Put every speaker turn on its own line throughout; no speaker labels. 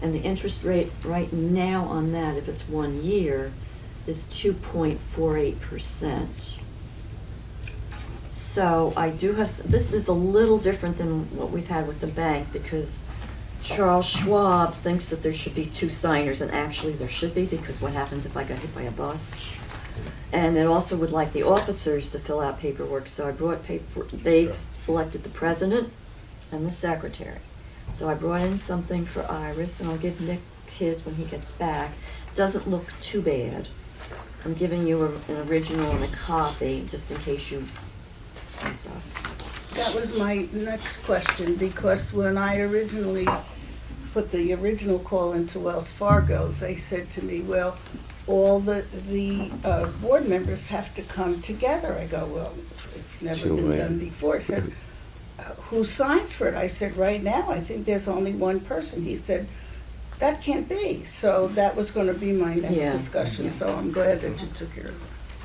And the interest rate right now on that, if it's one year, is two point four eight percent. So I do have, s- this is a little different than what we've had with the bank because Charles Schwab thinks that there should be two signers and actually there should be because what happens if I got hit by a bus? And it also would like the officers to fill out paperwork, so I brought paper, they
Sure.
selected the president and the secretary. So I brought in something for Iris, and I'll give Nick his when he gets back. Doesn't look too bad. I'm giving you a- an original and a copy, just in case you mess up.
That was my next question, because when I originally put the original call into Wells Fargo, they said to me, well, all the, the uh, board members have to come together. I go, well, it's never been
Joanne.
done before. He Said, "Uh, who signs for it? I said, right now, I think there's only one person. He said, that can't be. So that was gonna be my next
Yeah,
discussion,
yeah.
so I'm glad that you took care of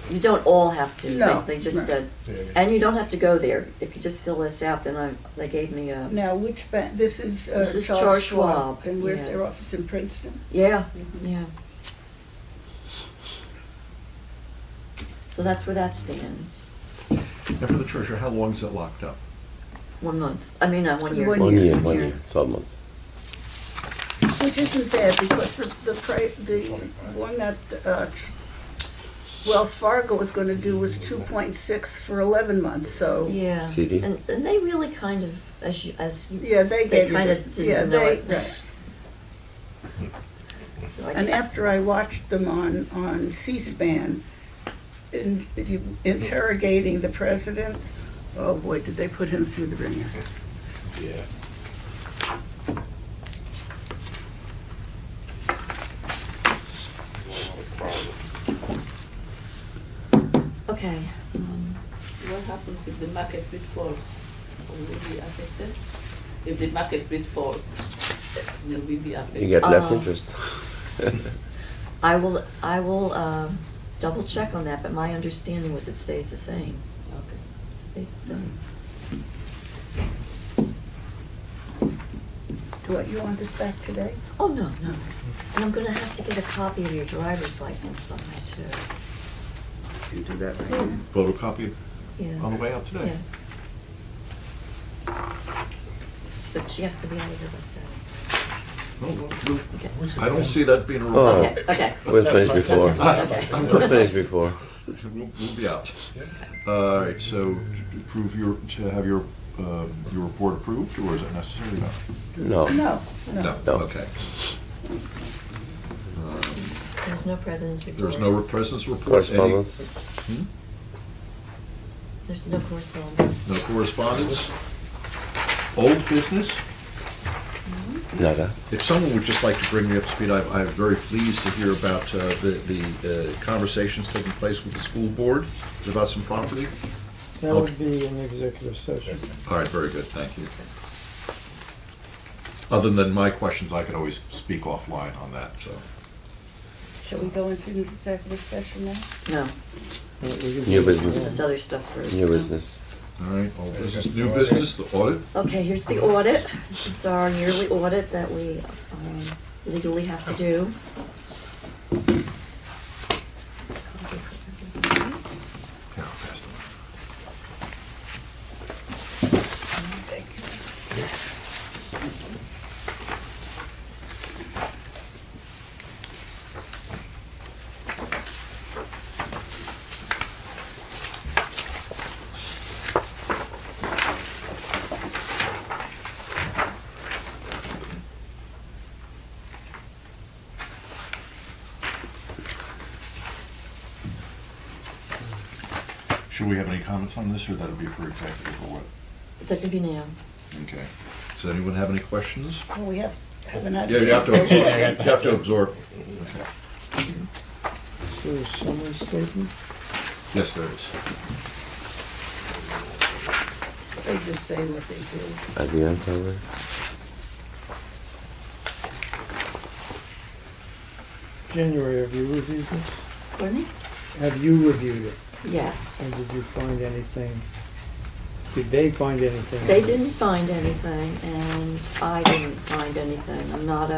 it.
You don't all have to,
No,
they, they just
right.
said,
Yeah.
and you don't have to go there. If you just fill this out, then I, they gave me a,
Now, which bank, this is uh,
This is
Charles
Charles
Schwab,
Schwab,
and where's
yeah.
their office in Princeton?
yeah, yeah. So that's where that stands,
Now, for the treasurer, how long is it locked up?
one month, I mean, uh, one year.
One
One year, one year, twelve months.
Which isn't bad, because the, the, pri- the one that, uh, Wells Fargo was gonna do was two point six for eleven months, so,
Yeah.
CD.
And, and they really kind of, as you, as you.
yeah, they
They
gave you
kinda
the-
didn't
yeah,
know
they-
it.
right.
So I
And
can't-
after I watched them on, on C-SPAN, in- you- interrogating the president, oh boy, did they put him through the ringer.
Yeah.
Okay, um,
What happens if the market rate falls? Will we be affected? If the market rate falls, will we be affected?
You get less
Oh.
Uh,
interest.
I will, I will, um, double check on that, but my understanding was it stays the same,
Okay.
stays the same.
Do you want this back today?
Oh, no, no, and I'm gonna have to get a copy of your driver's license somehow too,
You do that right now?
Photocopy on the
yeah,
way out today.
yeah. But she has to be out of here by seven, so.
No, no, no.
Okay.
Oh, I don't see that being a
Oh.
real,
Okay, okay,
We'll finish before.
okay.
We'll finish before.
we'll we'll be out. All right, so to approve your, to have your, um, your report approved, or is it necessary?
No.
No, no.
No,
No.
okay.
There's no president's report.
There's no presence report. any-
Correspondence.
There's no correspondence.
No correspondence. Old business?
Nada.
If someone would just like to bring me up to speed, I, I'm very pleased to hear about uh, the, the uh, conversations taking place with the school board about some property.
That would be an executive session.
All right, very good, thank you. Other than my questions, I could always speak offline on that, so.
Shall we go into executive session now?
No,
Uh, we can
New
do
business.
this
that.
is other stuff first.
New business.
All right, old business, new business, the audit,
Okay, here's the audit. This is our yearly audit that we um, legally have to do.
Yeah, I'll pass them. Should we have any comments on this, or that'll be for executive or what?
That could be now.
Okay. Does anyone have any questions?
Well, we have, haven't had. a
Yeah, you have to
chance
absorb, you have to absorb.
So a summary statement,
Yes, there is.
They just say what they do.
At the end, probably.
January, have you reviewed this?
Courtney?
Have you reviewed it? And
Yes.
did you find anything, did they find anything?
They
else?
didn't find anything, and I didn't find anything. I'm not a